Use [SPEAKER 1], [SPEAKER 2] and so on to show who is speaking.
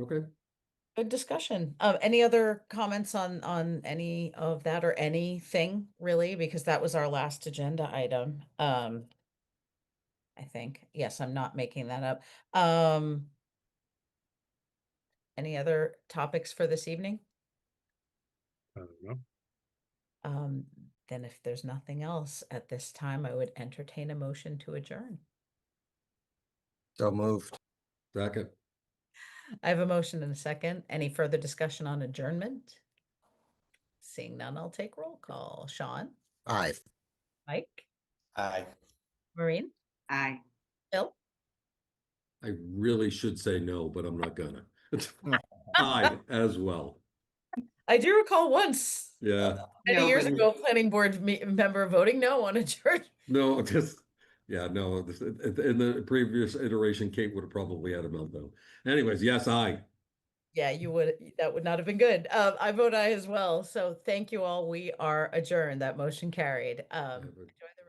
[SPEAKER 1] Okay,
[SPEAKER 2] Good discussion. Um, any other comments on, on any of that or anything really? Because that was our last agenda item. Um, I think, yes, I'm not making that up. Um, any other topics for this evening?
[SPEAKER 3] I don't know.
[SPEAKER 2] Um, then if there's nothing else at this time, I would entertain a motion to adjourn.
[SPEAKER 4] So moved.
[SPEAKER 1] second.
[SPEAKER 2] I have a motion and a second. Any further discussion on adjournment? Seeing none, I'll take roll call. Sean,
[SPEAKER 4] Aye.
[SPEAKER 2] Mike,
[SPEAKER 5] Aye.
[SPEAKER 2] Maureen?
[SPEAKER 6] Aye.
[SPEAKER 2] Bill?
[SPEAKER 1] I really should say no, but I'm not gonna. I as well.
[SPEAKER 2] I do recall once,
[SPEAKER 1] Yeah,
[SPEAKER 2] many
[SPEAKER 6] No,
[SPEAKER 2] years
[SPEAKER 6] but-
[SPEAKER 2] ago, planning board me- member voting no on a church.
[SPEAKER 1] no, just, yeah, no, this- in in the previous iteration, Kate would have probably had a meltdown. Anyways, yes, I.
[SPEAKER 2] Yeah, you would, that would not have been good. Uh, I vote aye as well. So thank you all. We are adjourned. That motion carried. Um, enjoy the